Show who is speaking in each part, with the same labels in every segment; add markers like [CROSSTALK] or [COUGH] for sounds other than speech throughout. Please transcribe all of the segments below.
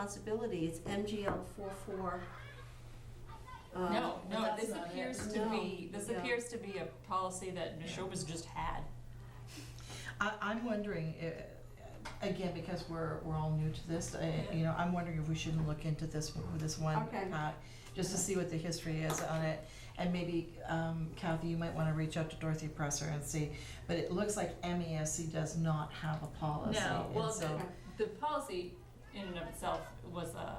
Speaker 1: responsibility, it's MGL four four. Uh, Um,
Speaker 2: No, no,
Speaker 3: that's
Speaker 2: this
Speaker 3: not it.
Speaker 2: appears to
Speaker 1: No,
Speaker 2: be, this
Speaker 1: no.
Speaker 2: appears to be a policy that Neshoba's just had.
Speaker 3: I, I'm wondering, eh, again, because we're, we're all new to this, eh, you know, I'm wondering if we shouldn't look into this, this one.
Speaker 1: Okay.
Speaker 3: uh, Just to see what the history is on it, and maybe um, Kathy, you might wanna reach out to Dorothy Presser and see, but it looks like MESC does not have a policy,
Speaker 2: No, well,
Speaker 3: and so,
Speaker 2: the, the policy in and of itself was a,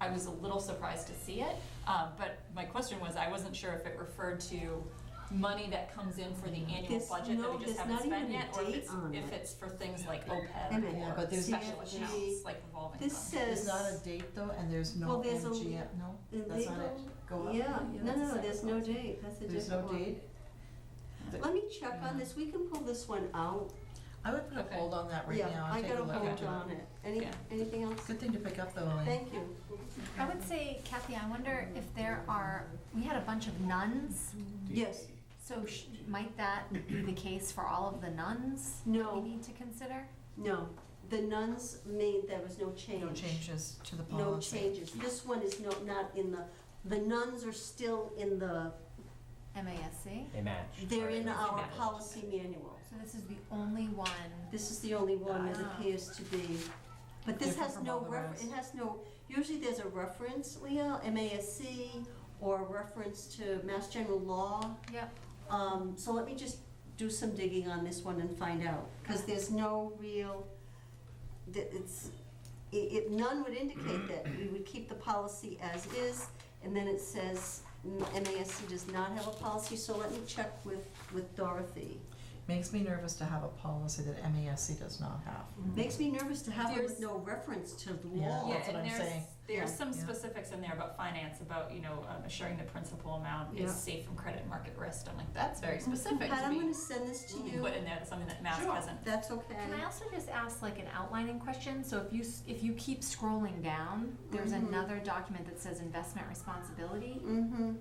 Speaker 2: I was a little surprised to see it, uh, but my question was, I wasn't sure if it referred to money that comes in for the annual
Speaker 1: There's
Speaker 2: budget that
Speaker 1: no-
Speaker 2: we
Speaker 1: there's
Speaker 2: just haven't
Speaker 1: not
Speaker 2: spent
Speaker 1: even a
Speaker 2: yet, or if
Speaker 1: date
Speaker 2: it's,
Speaker 1: on
Speaker 2: if
Speaker 1: it.
Speaker 2: it's for things like
Speaker 1: Wait a minute,
Speaker 2: OPEB
Speaker 3: but
Speaker 2: or
Speaker 3: there's-
Speaker 2: special
Speaker 1: CFG
Speaker 2: accounts, like revolving
Speaker 1: This
Speaker 2: funds.
Speaker 1: says.
Speaker 3: there's not a date though, and there's no
Speaker 1: Well, there's a-
Speaker 3: MGM, no,
Speaker 1: the
Speaker 3: that's not
Speaker 1: legal-
Speaker 3: it, go up.
Speaker 1: Yeah, no,
Speaker 2: Yeah, that's a
Speaker 1: no, there's no
Speaker 2: separate
Speaker 1: date, that's a
Speaker 3: There's no
Speaker 1: different one.
Speaker 3: date,
Speaker 1: Let me check on this, we can pull this one out.
Speaker 3: I would put a
Speaker 2: Okay.
Speaker 3: hold on that right
Speaker 1: Yeah,
Speaker 3: now, and take a
Speaker 1: I
Speaker 3: look
Speaker 1: got a hold
Speaker 3: into it.
Speaker 1: on it. Any,
Speaker 2: Yeah.
Speaker 1: anything else?
Speaker 3: Good thing to pick up though, Elaine.
Speaker 1: Thank you.
Speaker 4: I would say, Kathy, I wonder if there are, we had a bunch of nuns,
Speaker 1: Yes,
Speaker 4: so sh- might that be the case for all of the nuns? that
Speaker 1: No.
Speaker 4: We need to consider?
Speaker 1: no, the nuns made, there was no change.
Speaker 3: No changes to the policy.
Speaker 1: No changes. This one is no, not in the, the nuns are still in the,
Speaker 4: MASC?
Speaker 5: They match.
Speaker 1: they're in our
Speaker 5: Match.
Speaker 1: policy manual.
Speaker 4: So this is the only one,
Speaker 1: This is the only one that
Speaker 4: Ah.
Speaker 1: appears to be, but this
Speaker 3: Different
Speaker 1: has
Speaker 3: from all
Speaker 1: no
Speaker 3: the
Speaker 1: refer,
Speaker 3: rest.
Speaker 1: it has no, usually there's a reference, Leah, MASC, or a reference to Mass General Law.
Speaker 4: yep.
Speaker 1: Um, so let me just do some digging on this one and find out, because there's no real, th- it's, i it, none would indicate that we would keep the policy as is, and then it says mm, MASC does not have a policy, so let me check with, with Dorothy.
Speaker 3: Makes me nervous to have a policy that MASC does not have.
Speaker 1: Makes me nervous to have it with
Speaker 2: There's-
Speaker 1: no reference to the
Speaker 3: Yeah.
Speaker 1: law.
Speaker 2: Yeah,
Speaker 3: That's what
Speaker 2: and
Speaker 3: I'm
Speaker 2: there's,
Speaker 3: saying.
Speaker 2: there's
Speaker 3: Yeah.
Speaker 2: some
Speaker 3: Yeah.
Speaker 2: specifics in there about finance, about, you know, um, assuring the principal amount
Speaker 1: Yeah. Mm-hmm.
Speaker 2: is safe from credit market risk. I'm like, that's very specific
Speaker 1: Pat,
Speaker 2: to
Speaker 1: I'm
Speaker 2: be
Speaker 1: gonna send this to you.
Speaker 2: put in there, something that Mass
Speaker 1: Sure,
Speaker 2: hasn't.
Speaker 1: That's
Speaker 4: Can I
Speaker 1: okay.
Speaker 4: also just ask like an outlining question? So if you, s- if you keep scrolling down, there's
Speaker 3: Mm-hmm.
Speaker 4: another document that says investment responsibility
Speaker 1: Mm-hmm,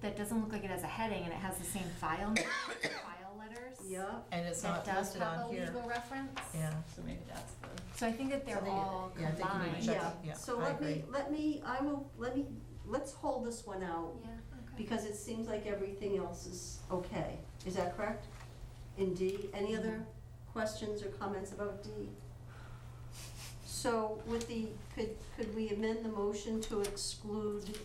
Speaker 4: that doesn't look like it has a heading and it has the same file, [COUGHS] name, file letters.
Speaker 1: yeah.
Speaker 3: And it's
Speaker 4: That
Speaker 3: not
Speaker 4: does
Speaker 3: listed
Speaker 4: have a
Speaker 3: on
Speaker 4: legal
Speaker 3: here.
Speaker 4: reference.
Speaker 3: Yeah.
Speaker 2: So maybe that's the.
Speaker 4: So I think
Speaker 3: So
Speaker 4: that they're
Speaker 3: they-
Speaker 4: all
Speaker 3: yeah, I think you need
Speaker 4: combined.
Speaker 3: to check.
Speaker 1: Yeah,
Speaker 3: yeah,
Speaker 1: so
Speaker 3: I
Speaker 1: let me,
Speaker 3: agree.
Speaker 1: let me, I will, let me, let's hold this one out,
Speaker 4: Yeah, okay.
Speaker 1: because it seems like everything else is okay. Is that correct? In D? Any other
Speaker 3: Mm-hmm.
Speaker 1: questions or comments about D? So with the, could, could we amend the motion to exclude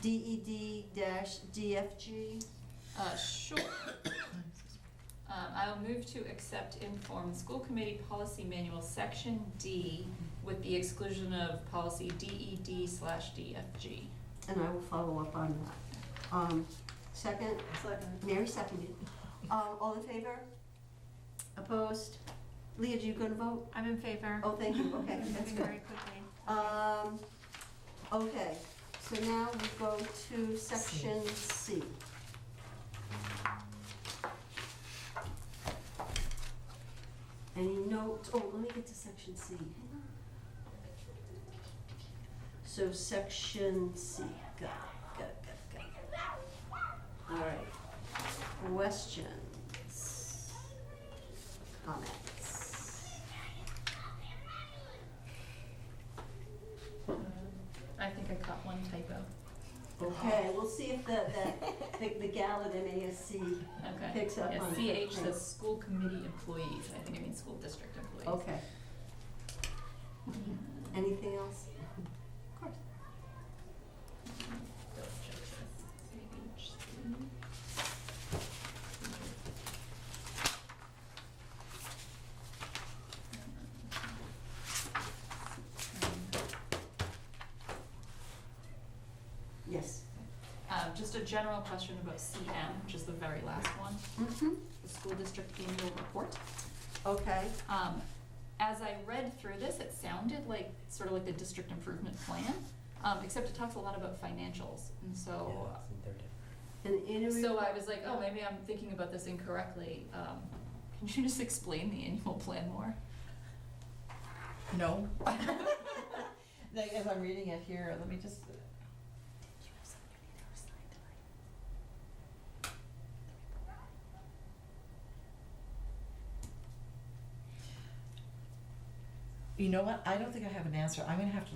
Speaker 1: DED dash DFG?
Speaker 2: Uh, sure. [COUGHS] Um, I will move to accept informed school committee policy manual section D with the exclusion of policy DED slash DFG.
Speaker 1: And I will follow up on that. Um, Second? Second. Mary seconded. Uh, All in favor? Opposed? Leah, do you going to vote?
Speaker 4: I'm in favor.
Speaker 1: Oh, thank you, okay, that's
Speaker 4: I'm moving
Speaker 1: good.
Speaker 4: very quickly.
Speaker 1: Um, okay, so now we go to section C. Any notes, oh, let me get to section C. Hang on. So section C, got it, got it, got it, got it. All right, questions? Comments?
Speaker 2: I think I caught one typo.
Speaker 1: Okay, we'll see if the, the- the, the gal at MASC
Speaker 2: Okay.
Speaker 1: picks up
Speaker 2: Yeah,
Speaker 1: on it.
Speaker 2: CH says school committee employees, and I think it means school district employees.
Speaker 1: Okay. Anything else? Of course.
Speaker 2: Double check this. CH.
Speaker 1: Yes.
Speaker 2: Um, Just a general question about CM, which is the very last one,
Speaker 1: Mm-hmm.
Speaker 2: the school district annual report.
Speaker 1: Okay,
Speaker 2: Um, As I read through this, it sounded like, sort of like the district improvement plan, um, except it talks a lot about financials, and so,
Speaker 5: Yeah, they're different.
Speaker 1: an interview.
Speaker 2: so I was like, oh, maybe I'm thinking about this incorrectly. Um, Can you just explain the annual plan more?
Speaker 4: [LAUGHS]
Speaker 3: No. Like, as I'm reading it here, let me just, You know what, I don't think I have an answer, I'm gonna have to